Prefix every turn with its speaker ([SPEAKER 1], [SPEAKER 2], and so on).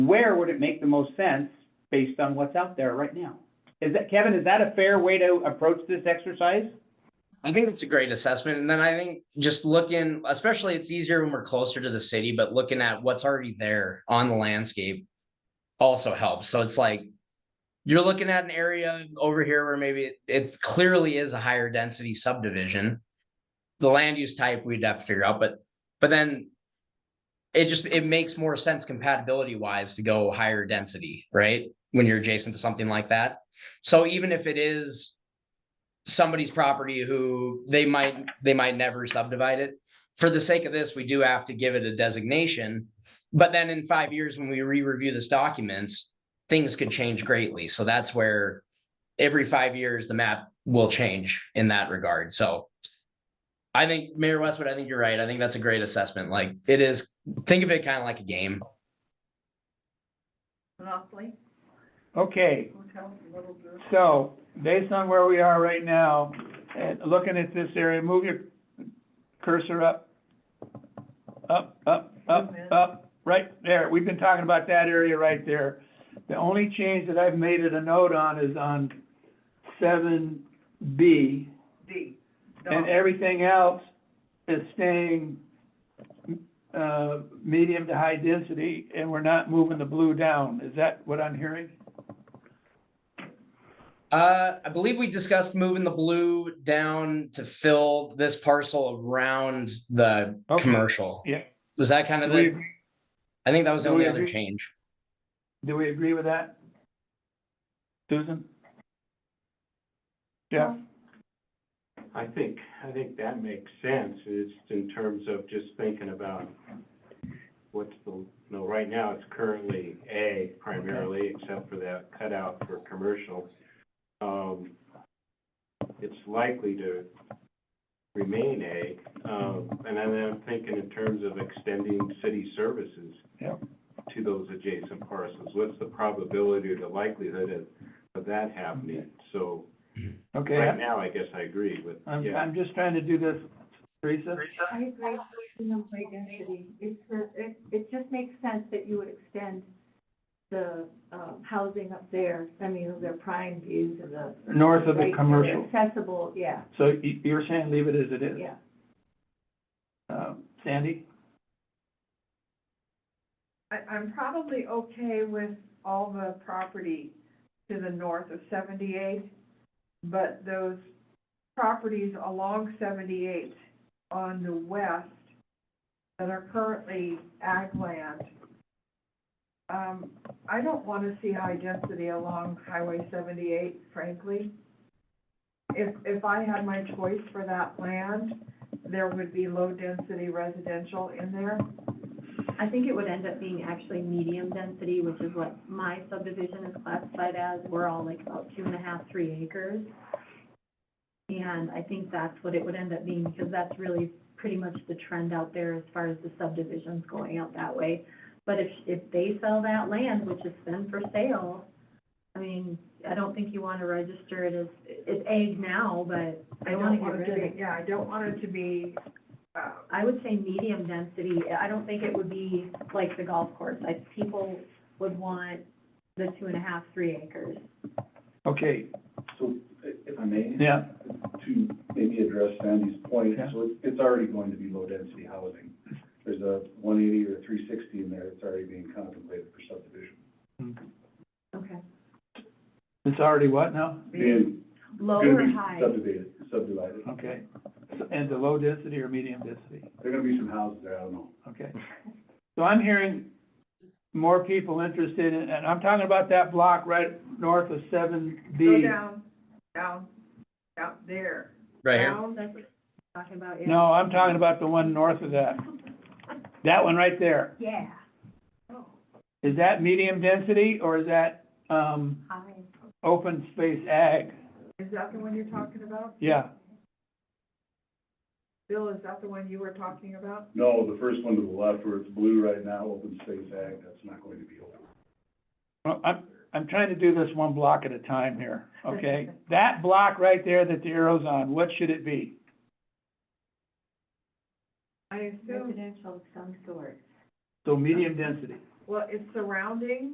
[SPEAKER 1] where would it make the most sense based on what's out there right now? Is that, Kevin, is that a fair way to approach this exercise?
[SPEAKER 2] I think it's a great assessment. And then I think just looking, especially it's easier when we're closer to the city, but looking at what's already there on the landscape also helps. So it's like you're looking at an area over here where maybe it, it clearly is a higher density subdivision. The land use type we'd have to figure out, but but then it just it makes more sense compatibility wise to go higher density, right? When you're adjacent to something like that. So even if it is somebody's property who they might, they might never subdivide it. For the sake of this, we do have to give it a designation. But then in five years, when we re-review this documents, things could change greatly. So that's where every five years, the map will change in that regard. So I think Mayor Westwood, I think you're right. I think that's a great assessment. Like it is, think of it kind of like a game.
[SPEAKER 3] Monopoly,
[SPEAKER 4] Okay,
[SPEAKER 3] hotel, little group.
[SPEAKER 4] so based on where we are right now, and looking at this area, move your cursor up. Up, up, up, up, right there. We've been talking about that area right there. The only change that I've made it a note on is on seven B.
[SPEAKER 3] D.
[SPEAKER 4] And
[SPEAKER 3] dog.
[SPEAKER 4] everything else is staying, uh, medium to high density, and we're not moving the blue down. Is that what I'm hearing?
[SPEAKER 2] Uh, I believe we discussed moving the blue down to fill this parcel around the
[SPEAKER 4] Okay.
[SPEAKER 2] commercial.
[SPEAKER 4] Yeah.
[SPEAKER 2] Was that kind of
[SPEAKER 4] Do we
[SPEAKER 2] the,
[SPEAKER 4] agree-
[SPEAKER 2] I think that was the
[SPEAKER 4] do we
[SPEAKER 2] only other
[SPEAKER 4] agree?
[SPEAKER 2] change.
[SPEAKER 4] Do we agree with that? Susan? Jeff?
[SPEAKER 5] I think, I think that makes sense, it's in terms of just thinking about what's the, you know, right now it's currently A primarily, except for that cutout for commercial. Um, it's likely to remain A, um, and then I'm thinking in terms of extending city services
[SPEAKER 4] Yep.
[SPEAKER 5] to those adjacent parcels, what's the probability or the likelihood of, of that happening? So,
[SPEAKER 4] Okay,
[SPEAKER 5] right
[SPEAKER 4] I'm-
[SPEAKER 5] now, I guess I agree with,
[SPEAKER 4] I'm,
[SPEAKER 5] yeah.
[SPEAKER 4] I'm just trying to do this, Teresa.
[SPEAKER 3] I agree, with the high density, it, it, it just makes sense that you would extend the, um, housing up there, I mean, their prime views of the.
[SPEAKER 4] North of the
[SPEAKER 3] right,
[SPEAKER 4] commercial.
[SPEAKER 3] Accessible, yeah,
[SPEAKER 4] So you, you're saying leave it as it is?
[SPEAKER 3] yeah.
[SPEAKER 4] Um, Sandy?
[SPEAKER 6] I, I'm probably okay with all the property to the north of seventy-eight, but those properties along seventy-eight on the west that are currently ag land, um, I don't wanna see high density along Highway seventy-eight, frankly. If, if I had my choice for that land, there would be low-density residential in there.
[SPEAKER 7] I think it would end up being actually medium density, which is what my subdivision is classified as. We're all like about two and a half, three acres. And I think that's what it would end up being, because that's really pretty much the trend out there as far as the subdivisions going out that way. But if, if they sell that land, which is then for sale, I mean, I don't think you want to register it as, it's ag now, but
[SPEAKER 6] I
[SPEAKER 7] I want
[SPEAKER 6] don't
[SPEAKER 7] to get
[SPEAKER 6] want it
[SPEAKER 7] rid of
[SPEAKER 6] to
[SPEAKER 7] it.
[SPEAKER 6] be, yeah, I don't want it to be, uh,
[SPEAKER 7] I would say medium density, I don't think it would be like the golf course, like people would want the two and a half, three acres.
[SPEAKER 4] Okay,
[SPEAKER 8] So, i- if I may,
[SPEAKER 4] yeah,
[SPEAKER 8] to maybe address Sandy's point,
[SPEAKER 4] Yeah.
[SPEAKER 8] so it's, it's already going to be low-density housing. There's a one eighty or three sixty in there that's already being contemplated for subdivision.
[SPEAKER 7] Okay.
[SPEAKER 4] it's already what now?
[SPEAKER 8] Being,
[SPEAKER 7] Low
[SPEAKER 8] gonna
[SPEAKER 7] or
[SPEAKER 8] be
[SPEAKER 7] high?
[SPEAKER 8] subdivided, subdivided.
[SPEAKER 4] Okay, So- and the low density or medium density,
[SPEAKER 8] There are gonna be some houses there, I don't know.
[SPEAKER 4] okay. So I'm hearing more people interested in, and I'm talking about that block right north of seven B.
[SPEAKER 6] go down, down, down there.
[SPEAKER 2] Right here.
[SPEAKER 6] Down,
[SPEAKER 7] That's what you're talking about, yeah.
[SPEAKER 4] No, I'm talking about the one north of that. That one right there.
[SPEAKER 7] Yeah,
[SPEAKER 4] Is that medium density or is that, um,
[SPEAKER 7] high.
[SPEAKER 4] open space ag?
[SPEAKER 6] is that the one you're talking about?
[SPEAKER 4] Yeah,
[SPEAKER 6] Bill, is that the one you were talking about?
[SPEAKER 8] No, the first one to the left where it's blue right now, open space ag, that's not going to be open.
[SPEAKER 4] Well, I'm, I'm trying to do this one block at a time here, okay? That block right there that the arrow's on, what should it be?
[SPEAKER 6] I assume,
[SPEAKER 7] Residential of some sort.
[SPEAKER 4] So medium density.
[SPEAKER 6] well, it's surrounding